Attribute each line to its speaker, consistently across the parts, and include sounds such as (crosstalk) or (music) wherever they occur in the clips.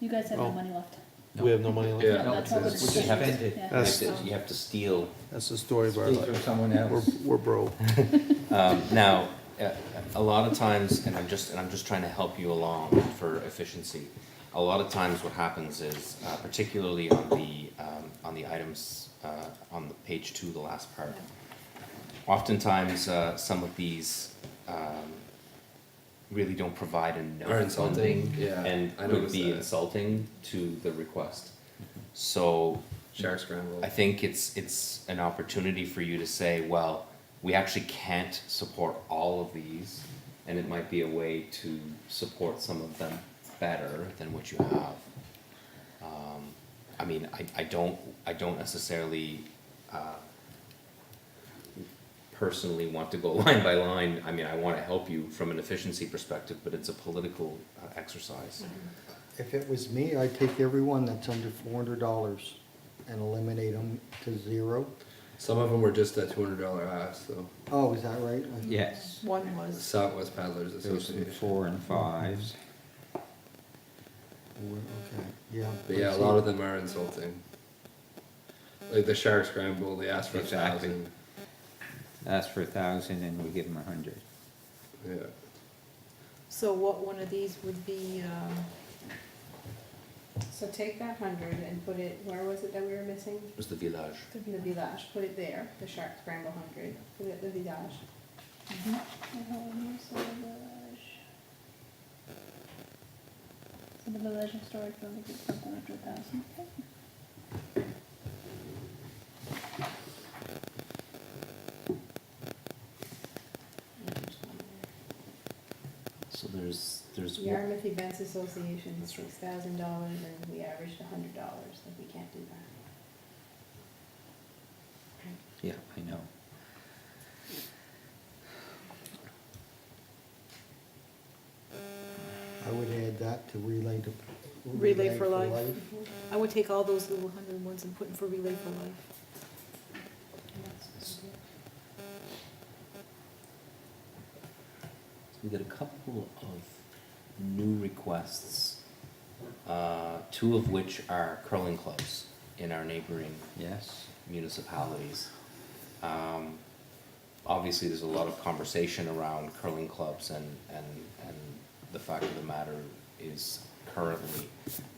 Speaker 1: You guys have no
Speaker 2: Oh.
Speaker 1: money left.
Speaker 2: We have no money left.
Speaker 3: Yeah.
Speaker 1: No,
Speaker 4: No,
Speaker 1: that's
Speaker 4: it's,
Speaker 1: what
Speaker 4: it's,
Speaker 1: we're
Speaker 4: you have
Speaker 1: saying.
Speaker 4: to,
Speaker 1: Yeah.
Speaker 2: That's-
Speaker 4: you have to- you have to steal
Speaker 2: That's the story of our
Speaker 4: steal from
Speaker 2: life.
Speaker 4: someone
Speaker 2: We're,
Speaker 4: else.
Speaker 2: we're broke.
Speaker 4: Um, now, uh, a lot of times, and I'm just, and I'm just trying to help you along for efficiency. A lot of times what happens is, uh, particularly on the, um, on the items, uh, on the page two, the last part. Oftentimes, uh, some of these, um, really don't provide enough
Speaker 3: Are insulting,
Speaker 4: funding
Speaker 3: yeah,
Speaker 4: And
Speaker 3: I
Speaker 4: would
Speaker 3: noticed
Speaker 4: be
Speaker 3: that. Mm-hmm.
Speaker 4: insulting to the request. So
Speaker 3: Shark scramble.
Speaker 4: I think it's, it's an opportunity for you to say, well, we actually can't support all of these, and it might be a way to support some of them better than what you have. Um, I mean, I, I don't, I don't necessarily, uh, personally want to go (laughs) line by line, I mean, I wanna help you from an efficiency perspective, but it's a political uh, exercise.
Speaker 5: If it was me, I'd take everyone that's under four hundred dollars and eliminate them to zero.
Speaker 3: Some of them were just that two hundred dollar half, so
Speaker 5: Oh, is that right?
Speaker 6: Yes,
Speaker 7: One was,
Speaker 3: Southwest Paddlers
Speaker 6: there was some
Speaker 3: Association.
Speaker 6: four and fives.
Speaker 5: Well, Okay, yeah.
Speaker 3: But yeah, a lot of them are insulting. Like the shark scramble, they asked for a
Speaker 6: Exactly.
Speaker 3: thousand.
Speaker 6: Ask for a thousand and we give them a hundred.
Speaker 3: Yeah.
Speaker 7: so what one of these would be, um,
Speaker 8: So take that hundred and put it, where was it that we were missing?
Speaker 4: It was the village.
Speaker 8: The village, put it there, the shark scramble hundred, put it at the village.
Speaker 1: So the village and storage building is something like two thousand.
Speaker 4: So there's, there's.
Speaker 8: Yarmouth Events Association,
Speaker 4: That's right.
Speaker 8: six thousand dollars, and we averaged a hundred dollars, like we can't do that.
Speaker 6: Yeah, I know.
Speaker 5: I would add that to relay to.
Speaker 7: Relay for Life. I would take all those little hundred ones and put them for Relay for Life.
Speaker 8: And that's-
Speaker 4: So we got a couple of new requests, uh, two of which are curling clubs in our neighboring
Speaker 6: Yes,
Speaker 4: municipalities. Um, obviously, there's a lot of conversation around curling clubs and, and, and the fact of the matter is currently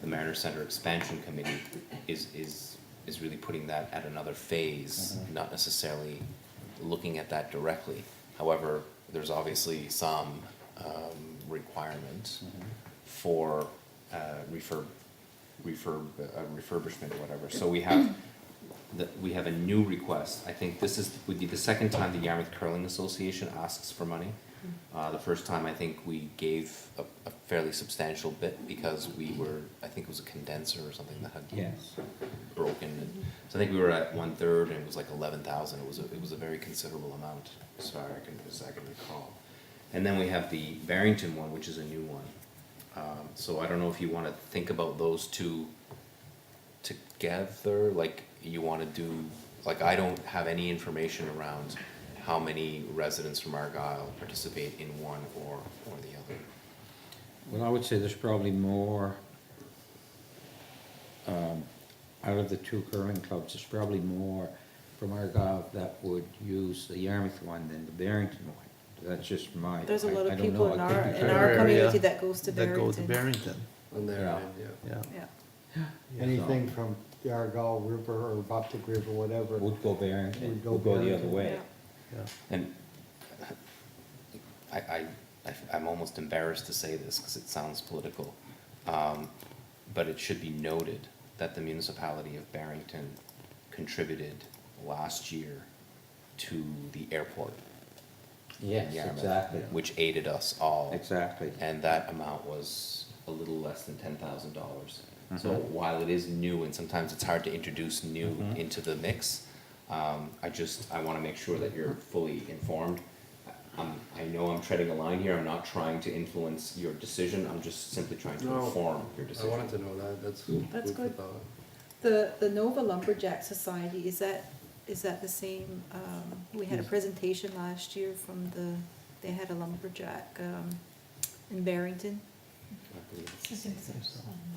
Speaker 4: the Mariner Center Expansion Committee is, is, is really putting that at another phase,
Speaker 6: Mhm.
Speaker 4: not necessarily looking at that directly. However, there's obviously some, um, requirement for, uh, refurb, refurb, uh, refurbishment or whatever. So we have that we have a new request. I think this is, would be the second time the Yarmouth Curling Association asks for money. Uh, the first time, I think we gave a, a fairly substantial bit because we were, I think it was a condenser or something that had
Speaker 6: yes.
Speaker 4: broken. And So I think we were at one third and it was like eleven thousand. It was, a it was a very considerable amount, as far I can, as I can recall. And then we have the Barrington one, which is a new one. Um, so I don't know if you wanna think about those two together, like you wanna do, like I don't have any information around how many residents from Argyle participate in one or, or the other.
Speaker 6: Well, I would say there's probably more, um, out of the two curling clubs, there's probably more from Argyle that would use the Yarmouth one than the Barrington one. That's just my, I I
Speaker 7: There's a lot of
Speaker 6: don't
Speaker 7: people
Speaker 6: know,
Speaker 7: in
Speaker 6: I could
Speaker 7: our,
Speaker 6: be
Speaker 7: in
Speaker 6: correct.
Speaker 7: our
Speaker 2: Area
Speaker 7: community that goes to
Speaker 2: That go to
Speaker 7: Barrington.
Speaker 2: Barrington,
Speaker 3: On their
Speaker 6: Yeah.
Speaker 3: end, yeah.
Speaker 2: yeah.
Speaker 7: Yeah,
Speaker 5: Anything from the Argyle River or Boptic River, whatever.
Speaker 6: Would go Barrington,
Speaker 5: Would go
Speaker 6: would go the other
Speaker 5: Barrington.
Speaker 6: way.
Speaker 7: yeah.
Speaker 2: Yeah.
Speaker 4: And I, I, I, I'm almost embarrassed to say this because it sounds political. Um, but it should be noted that the municipality of Barrington contributed last year to the airport,
Speaker 6: Yes,
Speaker 4: Yarmouth.
Speaker 6: exactly,
Speaker 4: which aided us all.
Speaker 6: exactly.
Speaker 4: And that amount was a little less than ten thousand dollars. So
Speaker 6: Mhm.
Speaker 4: while it is new, and sometimes it's hard to introduce new
Speaker 6: Mhm.
Speaker 4: into the mix, um, I just, I wanna make sure that you're fully informed. I- I'm, I know I'm treading a line here, I'm not trying to influence your decision, I'm just simply trying to
Speaker 3: No,
Speaker 4: inform your
Speaker 3: I
Speaker 4: decision.
Speaker 3: wanted to know that, that's.
Speaker 7: That's
Speaker 3: food for
Speaker 7: good.
Speaker 3: thought.
Speaker 7: The, the Nova Lumberjack Society, is that, is that the same, um, we had a presentation last year from the, they had a lumberjack, um, in Barrington. Um,
Speaker 4: I believe it's-
Speaker 1: I think so.